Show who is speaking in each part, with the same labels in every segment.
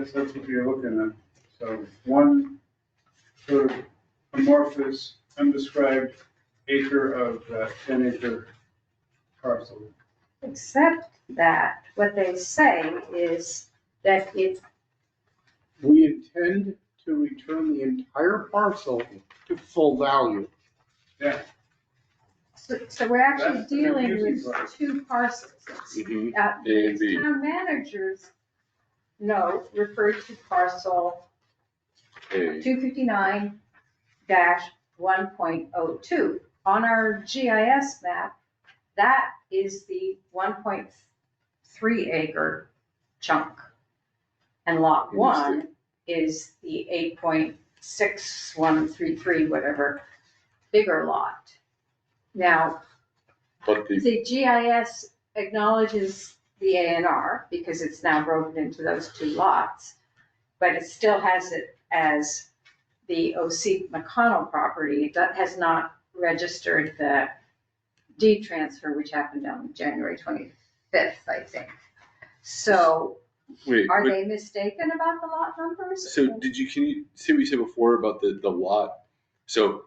Speaker 1: That's that's what you're looking at. So one sort of amorphous, undescribed acre of that ten acre parcel.
Speaker 2: Except that what they say is that it,
Speaker 3: We intend to return the entire parcel to full value.
Speaker 1: Yeah,
Speaker 2: so so we're actually
Speaker 1: That's the
Speaker 2: dealing with
Speaker 1: confusing part.
Speaker 2: two parcels. It's,
Speaker 4: Mm-hmm.
Speaker 2: uh,
Speaker 4: A and B.
Speaker 2: Town managers note referred to parcel
Speaker 4: A.
Speaker 2: two fifty-nine one point oh two. On our GIS map, that is the one point three acre chunk. And lot
Speaker 4: Understood.
Speaker 2: one is the eight point six one three three, whatever, bigger lot. Now,
Speaker 4: But the,
Speaker 2: the GIS acknowledges the A and R because it's now broken into those two lots, but it still has it as the OC McConnell property. It do- has not registered the deed transfer, which happened on January 25th, I think. So
Speaker 4: wait,
Speaker 2: are
Speaker 4: wait,
Speaker 2: they mistaken about the lot numbers?
Speaker 4: so did you, can you see what you said before about the, the lot? So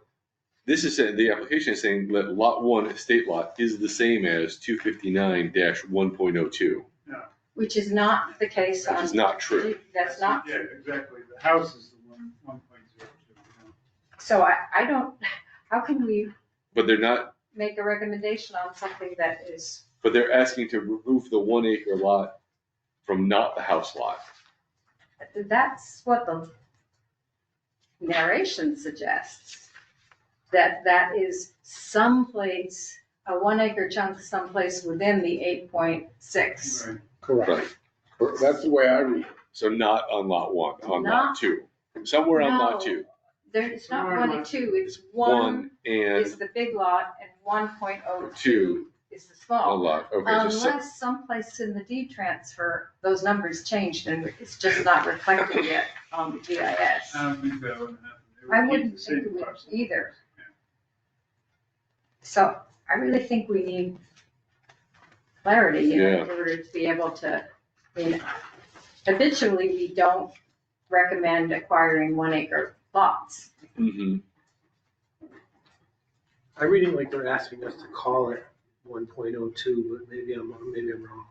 Speaker 4: this is, saying- the application is saying that lot one estate lot is the same as two fifty-nine one point oh two,
Speaker 2: Which is not the case
Speaker 4: which
Speaker 2: on.
Speaker 4: is not true.
Speaker 2: That's not
Speaker 1: Yeah, exactly. The house is the one, one point zero two.
Speaker 2: So I, I don't, how can we
Speaker 4: But they're not,
Speaker 2: make a recommendation on something that is,
Speaker 4: but they're asking to remove the one acre lot from not the house lot.
Speaker 2: that's what the narration suggests. That that is someplace, a one acre chunk someplace within the eight point six.
Speaker 1: Right.
Speaker 4: Right.
Speaker 3: Cor- That's the way I read.
Speaker 4: So not on lot one, on lot
Speaker 2: Not-
Speaker 4: two, somewhere on lot
Speaker 2: No.
Speaker 4: two.
Speaker 2: There, it's not
Speaker 1: Right.
Speaker 2: one and two, it's
Speaker 4: One
Speaker 2: one
Speaker 4: and
Speaker 2: is the big lot and one point oh
Speaker 4: two,
Speaker 2: two is the
Speaker 4: a
Speaker 2: small.
Speaker 4: lot, okay, so se-
Speaker 2: Unless someplace in the deed transfer, those numbers changed and it's just not reflected yet on the GIS.
Speaker 1: I don't think that would happen. They would
Speaker 2: I
Speaker 1: keep
Speaker 2: wouldn't
Speaker 1: the same
Speaker 2: think it would
Speaker 1: parcel.
Speaker 2: either. So I really think we need clarity in
Speaker 4: Yeah.
Speaker 2: order to be able to, I mean, habitually, we don't recommend acquiring one acre lots.
Speaker 4: mhm.
Speaker 5: I'm reading like they're asking us to call it one point oh two, but maybe I'm, maybe I'm wrong.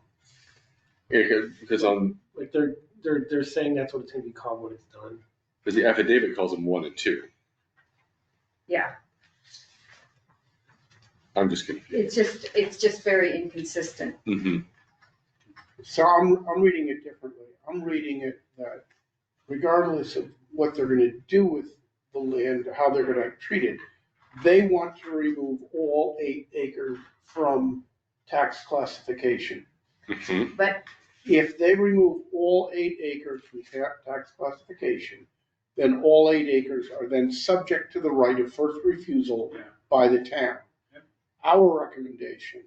Speaker 4: Yeah, 'cause- because on,
Speaker 5: Like they're, they're, they're saying that's what it's gonna be called when it's done.
Speaker 4: because the affidavit calls them one and two.
Speaker 2: Yeah.
Speaker 4: I'm just confused.
Speaker 2: It's just, it's just very inconsistent.
Speaker 4: hmm
Speaker 3: So I'm, I'm reading it differently. I'm reading it that regardless of what they're gonna do with the land, how they're gonna treat it, they want to remove all eight acres from tax classification.
Speaker 4: hmm
Speaker 3: If they remove all eight acres from ta- tax classification, then all eight acres are then subject to the right of first refusal
Speaker 1: Yeah.
Speaker 3: by the town.
Speaker 1: Yep.
Speaker 3: Our recommendation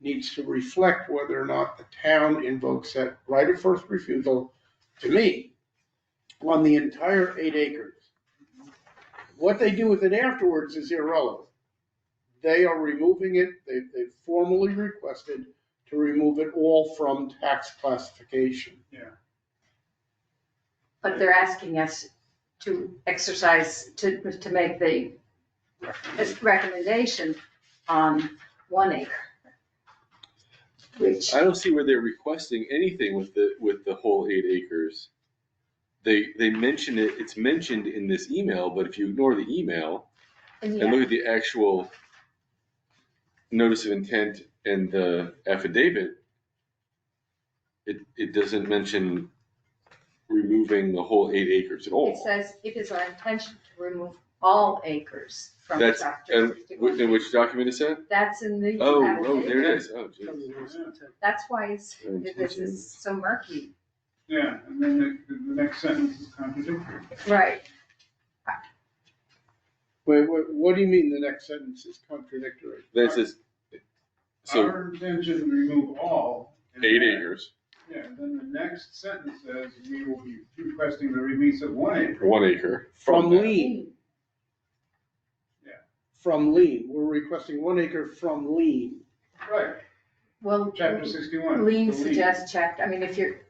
Speaker 3: needs to reflect whether or not the town invokes that right of first refusal, to me, on the entire eight acres. What they do with it afterwards is irrelevant. They are removing it, they, they formally requested to remove it all from tax classification.
Speaker 2: But they're asking us to exercise, to, to make the recommendation on one acre. Which,
Speaker 4: I don't see where they're requesting anything with the, with the whole eight acres. They, they mention it, it's mentioned in this email, but if you ignore the email
Speaker 2: and
Speaker 4: and look at the actual notice of intent and the affidavit, it, it doesn't mention removing the whole eight acres at all.
Speaker 2: It says, it is our intention to remove all acres from
Speaker 4: That's-
Speaker 2: chapter
Speaker 4: And which, in
Speaker 2: fifty-one.
Speaker 4: which document is that?
Speaker 2: That's in the.
Speaker 4: Oh, oh,
Speaker 2: affidavit.
Speaker 4: there it is. Oh, geez.
Speaker 2: That's why it's,
Speaker 4: Oh, it's
Speaker 2: this is so murky.
Speaker 1: Yeah, and then the, the next sentence is contradictory.
Speaker 2: Right.
Speaker 3: Wait, what, what do you mean the next sentence is contradictory?
Speaker 4: That says, so
Speaker 1: Our intention to remove all. and
Speaker 4: eight
Speaker 1: then-
Speaker 4: acres,
Speaker 1: Yeah, and then the next sentence says, we will be requesting the release of one acre.
Speaker 4: or one acre.
Speaker 3: From
Speaker 4: that.
Speaker 3: lien, from lien, we're requesting one acre from lien.
Speaker 1: Right,
Speaker 2: Well,
Speaker 1: chapter sixty-one.
Speaker 2: lean
Speaker 1: the lien.
Speaker 2: suggests chapter, I mean, if you're,